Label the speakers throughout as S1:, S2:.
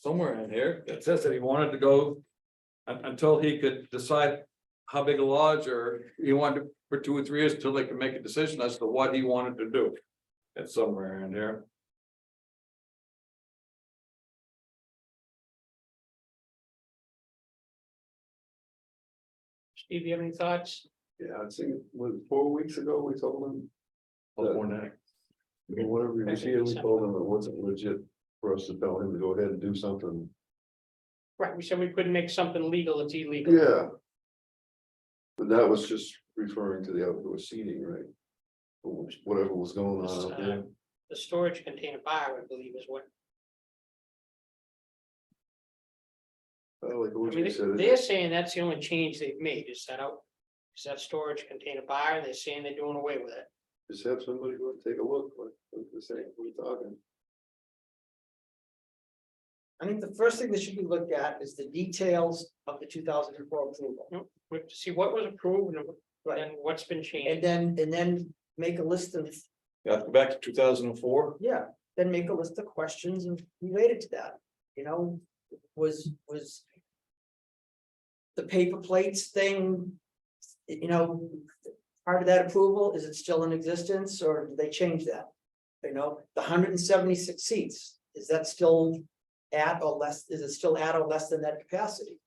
S1: somewhere in here that says that he wanted to go. un- until he could decide how big a lodge or he wanted for two or three years until they could make a decision as to what he wanted to do. It's somewhere in here.
S2: Steve, you have any thoughts?
S3: Yeah, I think it was four weeks ago, we told him,
S1: Before that.
S3: or whatever, he was
S2: Okay.
S3: here, we told him it wasn't legit for us to tell him to go ahead and do something.
S2: Right, we said we couldn't make something legal, it's illegal.
S3: Yeah. But that was just referring to the outdoor seating, right? Which- Whatever was going on out there.
S2: uh, The storage container bar, I believe, is what,
S3: Oh, like
S2: I mean,
S3: what you said.
S2: they're saying that's the only change they've made, is that out. Is that storage container bar, they're saying they're doing away with it.
S3: Just have somebody go and take a look, what, what they're saying, we're talking.
S4: I think the first thing that should be looked at is the details of the two thousand and four approval.
S2: We have to see what was approved and
S4: Right,
S2: then what's been
S4: and
S2: changed.
S4: then, and then make a list of,
S1: Yeah, go back to two thousand and four.
S4: yeah, then make a list of questions and related to that, you know, was, was. The paper plates thing, you know, part of that approval, is it still in existence or did they change that? You know, the hundred and seventy-six seats, is that still at or less, is it still at or less than that capacity?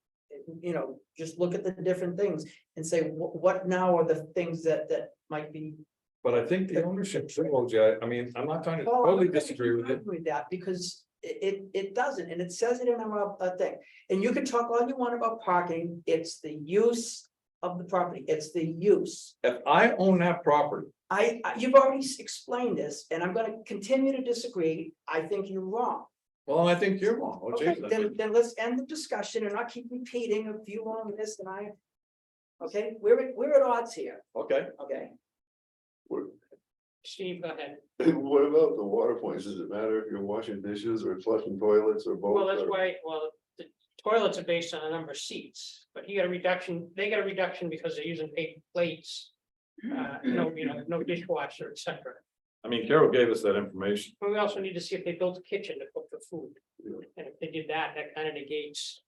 S4: You know, just look at the different things and say, what, what now are the things that, that might be
S1: But I think the ownership thing, OJ, I mean, I'm not trying to
S4: Paul, I'm
S1: totally
S4: gonna
S1: disagree with it.
S4: disagree With that, because it, it, it doesn't, and it says it in our, uh, thing, and you can talk all you want about parking, it's the use of the property, it's the use.
S1: If I own that property,
S4: I, I- you've already s- explained this, and I'm gonna continue to disagree, I think you're wrong.
S1: well, I think you're wrong, Oh,
S4: Okay,
S1: OJ.
S4: then, then let's end the discussion and not keep repeating of you on this and I. Okay, we're, at- we're at odds here,
S1: Okay.
S4: okay?
S3: What,
S2: Steve, go ahead.
S3: what about the water points? Does it matter if you're washing dishes or flushing toilets or both?
S2: Well, that's
S3: or-
S2: why, well, the toilets are based on the number of seats, but he got a reduction, they got a reduction because they're using paper plates. Uh, no, you know, no dishwasher, et cetera.
S1: I mean, Carol gave us that information.
S2: But we also need to see if they built a kitchen to cook the food.
S3: Yeah.
S2: And if they did that, that kind of negates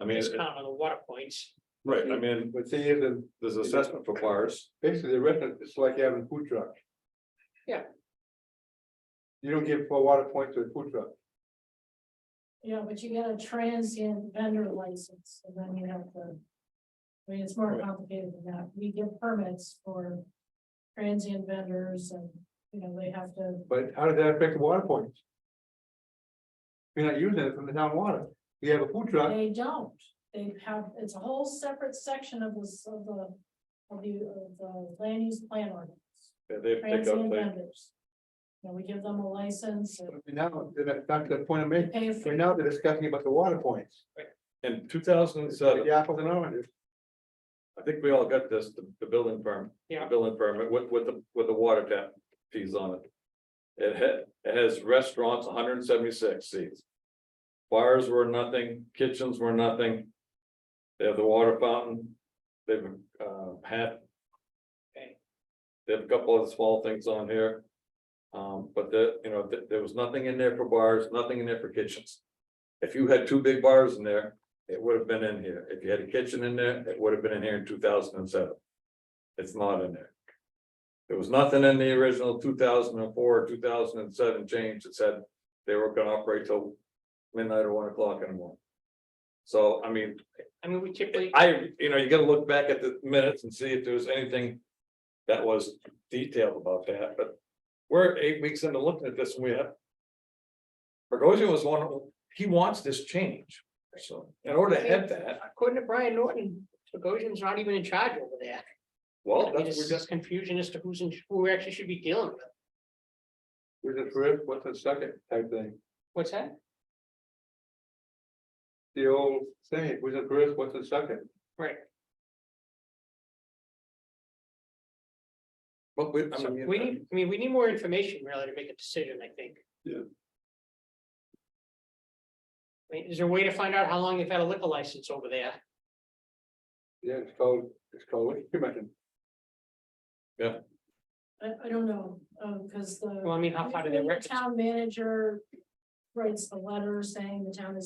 S1: I mean,
S2: this
S1: it-
S2: count on the water points.
S1: right, I mean,
S3: But see, the,
S1: there's assessment for bars.
S3: basically the restaurant, it's like having food truck.
S2: Yeah.
S3: You don't give a water point to a food truck.
S5: Yeah, but you get a transient vendor license, and then you have to. I mean, it's more
S1: Right.
S5: complicated than that, we give permits for transient vendors and, you know, they have to,
S3: But how did that affect the water points? You're not using it from the town water. You have a food
S1: Uh.
S3: truck.
S5: they don't. They have, it's a whole separate section of this, of the, of the, of the land use plan ordinance,
S1: Yeah, They pick up
S5: transient
S1: things.
S5: vendors. You know, we give them a license and
S3: Now, that's not the point I'm
S5: they
S3: making.
S5: pay for.
S3: Right now, they're discussing about the water points.
S1: In two thousand and seven,
S3: The apples and oranges.
S1: I think we all got this, the, the building permit. the
S2: Yeah.
S1: Building permit with, with the, with the water tap fees on it. It had, it has restaurants, hundred and seventy-six seats. Bars were nothing, kitchens were nothing. They have the water fountain, they've, uh, had.
S2: Okay.
S1: They have a couple of small things on here. Um, but the, you know, th- there was nothing in there for bars, nothing in there for kitchens. If you had two big bars in there, it would have been in here. If you had a kitchen in there, it would have been in here in two thousand and seven. It's not in there. There was nothing in the original two thousand and four, two thousand and seven change that said they were gonna operate till midnight or one o'clock in the morning. So, I mean,
S2: I mean, we typically,
S1: I, you know, you gotta look back at the minutes and see if there was anything that was detailed about that, but we're eight weeks into looking at this and we have. Bogosian was one, of- he wants this change, so in order to have that,
S2: according to Brian Norton, Bogosian's not even in charge over there.
S1: well,
S2: I mean,
S1: that's,
S2: it's
S1: we're just,
S2: just confusion as to who's in, who actually should be dealing with.
S3: We're just rip, what's the second type thing?
S2: What's that?
S3: The old saying, we're just rip, what's the second?
S2: Right.
S1: but we, I
S2: So
S1: mean.
S2: we need, I mean, we need more information really to make a decision, I think.
S3: Yeah.
S2: I mean, is there a way to find out how long they've had a liquor license over there?
S3: Yeah, it's called, it's called, what you mentioned.
S5: I, I don't know, um, cause the.
S2: Well, I mean, how far do they
S5: Usually the
S2: record?
S5: Town manager writes the letter saying the town is